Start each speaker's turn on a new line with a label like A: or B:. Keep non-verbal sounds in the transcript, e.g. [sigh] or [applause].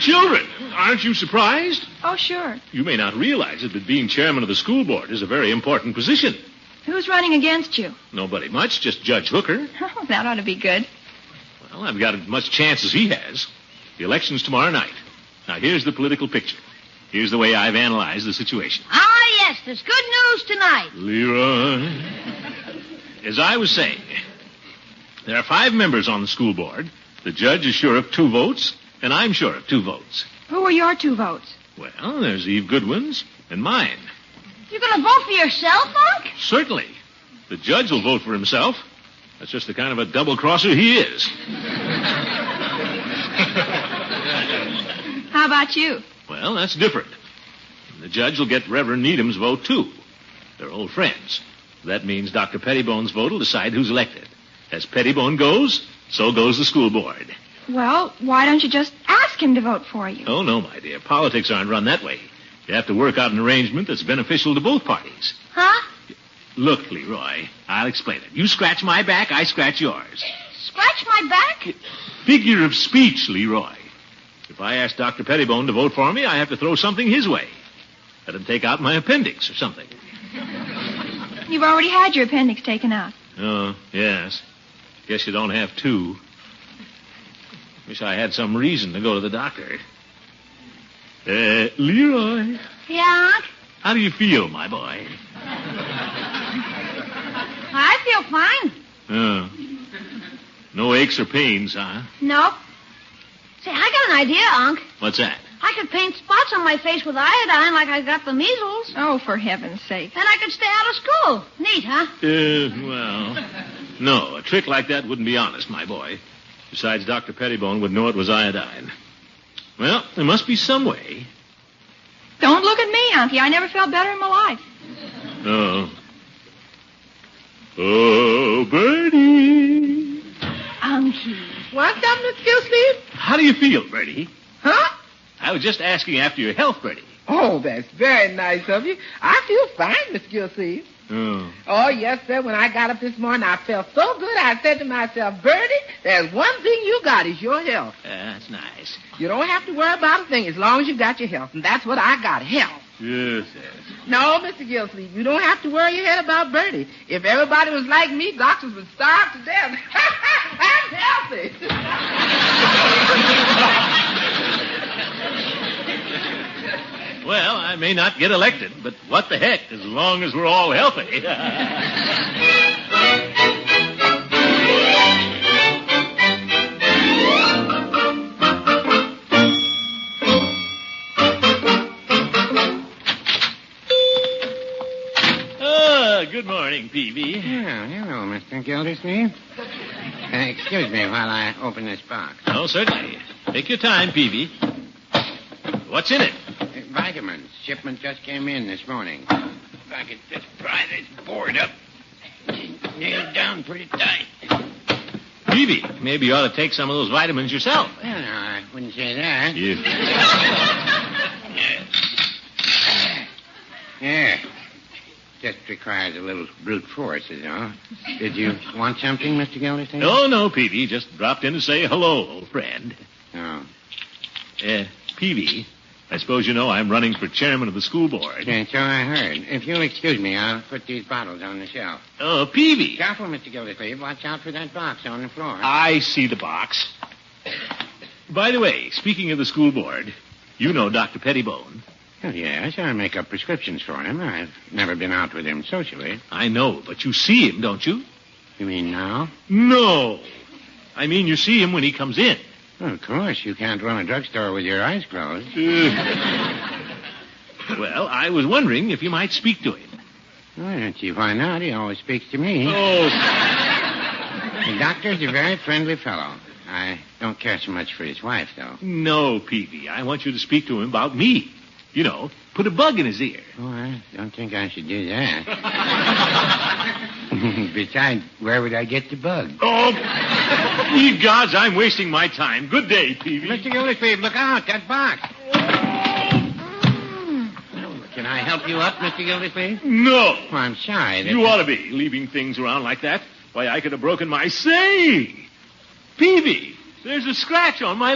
A: children. Aren't you surprised?
B: Oh, sure.
A: You may not realize it, but being chairman of the school board is a very important position.
B: Who's running against you? [laughs]
A: Nobody much, just Judge Hooker.
B: Oh, that ought to be good.
A: Well, I've got as much chance as he has. The election's tomorrow night. Now, here's the political picture. Here's the way I've analyzed the situation.
C: Ah, yes, there's good news tonight.
A: Leroy. As I was saying, there are five members on the school board. The judge is sure of two votes, and I'm sure of two votes.
B: Who are your two votes?
A: Well, there's Eve Goodwin's and mine.
C: You're going to vote for yourself, Unc?
A: Certainly. The judge will vote for himself. That's just the kind of a double crosser he is.
B: How about you?
A: Well, that's different. The judge will get Reverend Needham's vote, too. They're old friends. That means Dr. Pettibone's vote will decide who's elected. As Pettibone goes, so goes the school board.
B: Well, why don't you just ask him to vote for you?
A: Oh, no, my dear. Politics aren't run that way. You have to work out an arrangement that's beneficial to both parties.
C: Huh?
A: Look, Leroy, I'll explain it. You scratch my back, I scratch yours.
C: Scratch my back?
A: Figure of speech, Leroy. If I ask Dr. Pettibone to vote for me, I have to throw something his way. Let him take out my appendix or something.
B: You've already had your appendix taken out.
A: Oh, yes. Guess you don't have two. Wish I had some reason to go to the doctor. Uh, Leroy,
C: Yeah, Unc.
A: how do you feel, my boy?
C: I feel fine.
A: Oh. No aches or pains, huh?
C: Nope. Say, I got an idea, Unc.
A: What's that?
C: I could paint spots on my face with iodine like I got the measles.
B: Oh, for heaven's sake.
C: And I could stay out of school. Neat, huh?
A: Uh, well, no, a trick like that wouldn't be honest, my boy. Besides, Dr. Pettibone would know it was iodine. Well, there must be some way.
B: Don't look at me, Auntie. I never felt better in my life.
A: Oh. Oh, Bertie.
B: Auntie.
D: What's up, Miss Gilsleeve?
A: How do you feel, Bertie?
D: Huh?
A: I was just asking after your health, Bertie.
D: Oh, that's very nice of you. I feel fine, Miss Gilsleeve.
A: Oh.
D: Oh, yes, sir. When I got up this morning, I felt so good. I said to myself, Bertie, there's one thing you got is your health.
A: That's nice.
D: You don't have to worry about a thing as long as you got your health. And that's what I got, health.
A: Yes, yes.
D: No, Mr. Gilsleeve, you don't have to worry your head about Bertie. If everybody was like me, doctors would starve to death. [laughs] I'm healthy.
A: Well, I may not get elected, but what the heck, as long as we're all healthy. Ah, Good morning, Peavy.
E: Well, hello, Mr. Gildersleeve. Uh, excuse me while I open this box.
A: Oh, certainly. Take your time, Peavy. What's in it?
E: Uh, vitamins. Shipment just came in this morning. If I could just pry this board up, nailed down pretty tight. Well,
A: Peavy, maybe you ought to take some of those vitamins yourself.
E: no, I wouldn't say that.
A: Yeah.
E: Yeah. Just requires a little brute force, is all. Did you want something, Mr. Gildersleeve?
A: Oh, no, Peavy. Just dropped in to say hello, old friend.
E: Oh.
A: Uh, Peavy, I suppose you know I'm running for chairman of the school board.
E: Yeah, so I heard. If you'll excuse me, I'll put these bottles on the shelf.
A: Oh, Peavy.
E: Careful, Mr. Gildersleeve. Watch out for that box on the floor.
A: I see the box. By the way, speaking of the school board, you know Dr. Pettibone.
E: Well, Oh, yes, I make up prescriptions for him. I've never been out with him socially.
A: I know, but you see him, don't you?
E: You mean now?
A: No. I mean, you see him when he comes in.
E: Well, of course, you can't run a drugstore with your eyes closed.
A: Well, I was wondering if you might speak to him.
E: Well, gee, why not? He always speaks to me.
A: Oh,
E: The doctor's a very friendly fellow. I don't care so much for his wife, though.
A: no, Peavy. I want you to speak to him about me. You know, put a bug in his ear.
E: Oh, I don't think I should do that. [laughs] Besides, where would I get the bug?
A: Oh, [laughs] ye gods, I'm wasting my time. Good day, Peavy.
E: Mr. Gildersleeve, look out, that box. Can I help you up, Mr. Gildersleeve?
A: No.
E: Oh, I'm sorry. This
A: You ought to be leaving things around like that. Why, I could have broken my say. Peavy, there's a scratch on my